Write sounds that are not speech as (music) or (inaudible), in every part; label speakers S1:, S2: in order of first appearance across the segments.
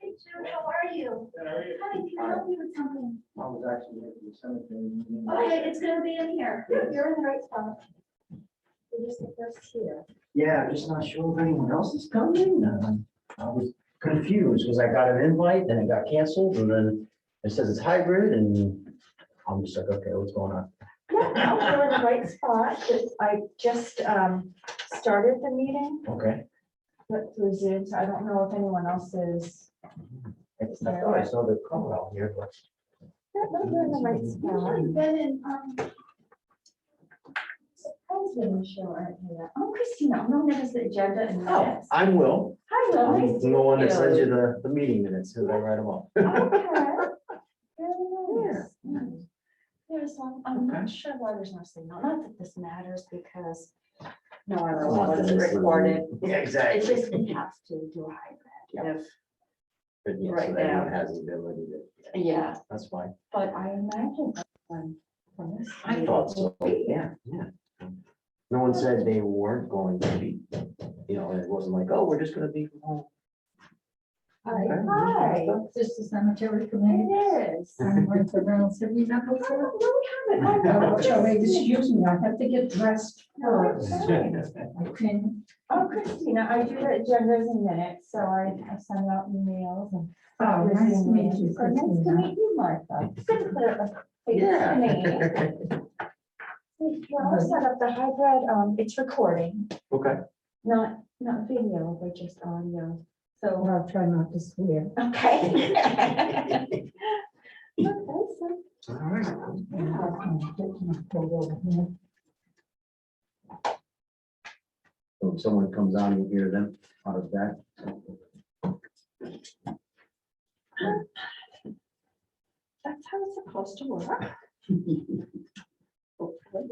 S1: Sue, how are you? Honey, can I help you with something?
S2: I was actually at the cemetery.
S1: Okay, it's gonna be in here. You're in the right spot. You're just the first here.
S2: Yeah, I'm just not sure if anyone else is coming. Um, I was confused because I got an invite, then it got canceled, and then it says it's hybrid, and I'm just like, okay, what's going on?
S3: Yeah, no, we're in the right spot. It's- I just um, started the meeting,
S2: Okay.
S3: but through Zoom, so I don't know if anyone else is.
S2: I I thought I saw the color out here, but
S3: Yeah, no, We're in the right spot.
S1: Usually Ben and, um,
S3: Surprised when Michelle aren't here. Oh, Christina, I'm gonna notice the agenda and
S2: Oh,
S3: minutes.
S2: I will.
S3: Hi, Will.
S2: I'm
S3: Nice to
S2: the one that
S3: meet Oh,
S2: sends you the, the meeting minutes, who I write them up.
S3: Okay. Very nice. Mm. There's one, I'm
S2: Okay.
S3: not sure why there's no signal. Not that this matters because no, I
S2: Not that
S3: realize it's
S2: this is-
S3: recorded.
S2: Yeah,
S3: It's
S2: exactly.
S3: just we have to do a hybrid. If,
S2: But yeah, so
S3: right
S2: that everyone
S3: now.
S2: has the ability to, yeah,
S3: yeah.
S2: that's fine.
S3: But I imagine one from this.
S2: I thought so, yeah, yeah. No one said they weren't going to be, you know, it wasn't like, oh, we're just gonna be from home.
S3: Hi,
S4: This is cemetery committee.
S3: it is.
S4: I'm with the rounds. Have you met
S3: I
S4: before?
S3: don't really have it. I
S4: Oh,
S3: don't
S4: Joey,
S3: just-
S4: excuse me, I have to get dressed first. Okay.
S3: Oh, Christina, I do the agendas and minutes, so I, I send out emails and.
S4: Oh, nice to meet you,
S3: Oh, Nice to
S4: Christina.
S3: meet you,
S4: (laughs)
S3: Martha. It's Good to put a face to name.
S2: Yeah.
S3: You're all set up the hybrid, um, it's recording,
S2: Okay,
S3: not, not video, but just audio, so.
S4: Well, I'll try not to swear. (laughs)
S3: Okay. (laughs) Okay, so,
S2: all right.
S3: yeah.
S2: So if someone comes on, you hear them out of that.
S3: That's how it's supposed to work. Hopefully.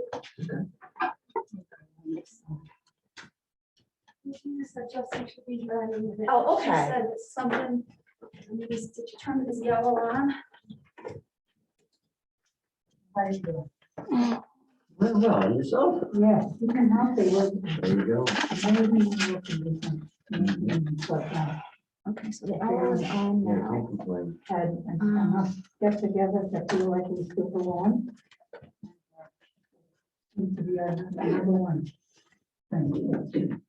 S1: Ms. Justin should be running with it.
S3: Oh,
S1: She
S3: okay.
S1: said it's something, maybe, did you turn this yellow on?
S2: Well, well, and yourself,
S4: Yes, you can have the word.
S2: there you go.
S4: Maybe you can listen. Mm, but, uh,
S3: Okay, so the hour is on
S2: Yeah,
S3: now.
S2: don't complain.
S4: Had and come up, get together that feel like we still belong. Seems to be our number one. thing.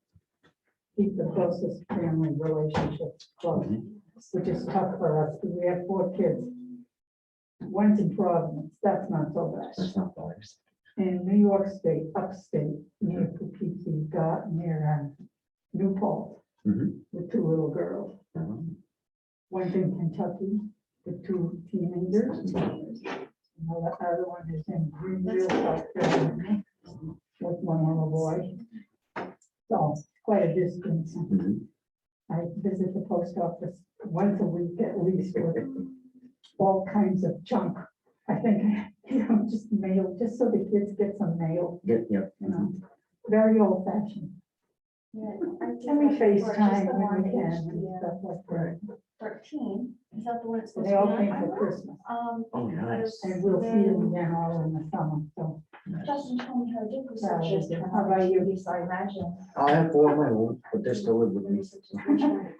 S4: Keep the closest family relationships close.
S2: Mhm.
S4: which is tough for us, because we have four kids. One's in Providence, that's not so bad.
S2: That's not biased.
S4: In New York State, upstate, near Poughkeepsie, got near um, Newport,
S2: Mhm.
S4: with two little girls.
S2: Um,
S4: One's in Kentucky, with two teenagers. And The other one is in Greenville, South Carolina, with one little boy. So quite a distance.
S2: mhm.
S4: I visit the post office once a week at least with all kinds of junk. I think, (laughs) you know, just mail, just so the kids get some mail,
S2: Yeah, yeah.
S4: you know, very old fashioned. And we FaceTime when we can and stuff like that.
S1: Thirteen, is that the one it's
S4: So
S1: supposed to
S4: They
S1: be
S4: all
S1: on?
S4: came
S1: I
S4: for
S1: don't know.
S4: Christmas
S1: Um,
S2: Oh, nice.
S4: and we'll see them again all in the summer, so.
S1: Justin told me how to do
S4: that (laughs)
S1: research.
S4: was it. How about you, Lisa, I imagine?
S2: I have four of my own, but they're still live
S1: (laughs)
S2: with me.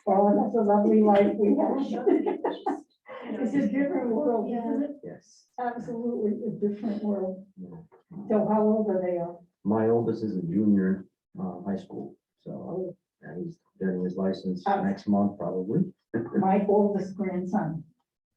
S4: Well, that's a lovely life we (laughs) have. It's a
S1: This
S4: different world, isn't it?
S2: Yes.
S4: Absolutely a different world. So how old are they all?
S2: My oldest is a junior, uh, high school, so, and he's getting his license
S4: Oh.
S2: next month probably.
S4: My oldest grandson